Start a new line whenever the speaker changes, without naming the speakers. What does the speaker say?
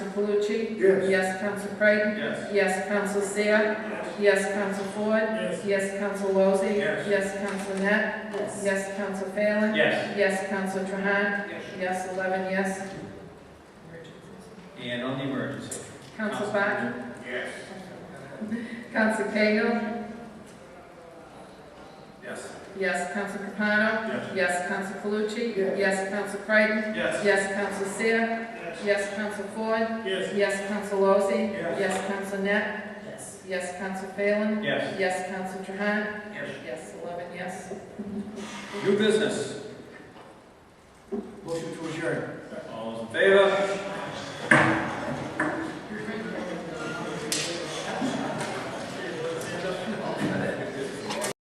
Calucci?
Yes.
Yes, Counsel Creighton?
Yes.
Yes, Counsel Seer?
Yes.
Yes, Counsel Ford?
Yes.
Yes, Counsel Lozey?
Yes.
Yes, Counsel Net?
Yes.
Yes, Counsel Phelan?
Yes.
Yes, Counsel Trahan? Yes, eleven, yes.
And on the emergency?
Counsel Barton?
Yes.
Counsel Cahill?
Yes.
Yes, Counsel Capano?
Yes.
Yes, Counsel Calucci?
Yes.
Yes, Counsel Creighton?
Yes.
Yes, Counsel Seer?
Yes.
Yes, Counsel Ford?
Yes.
Yes, Counsel Lozey?
Yes.
Yes, Counsel Net?
Yes.
Yes, Counsel Phelan?
Yes.
Yes, Counsel Trahan?
Yes.
Yes, eleven, yes.
New business? Motion to adjourn. All those in favor?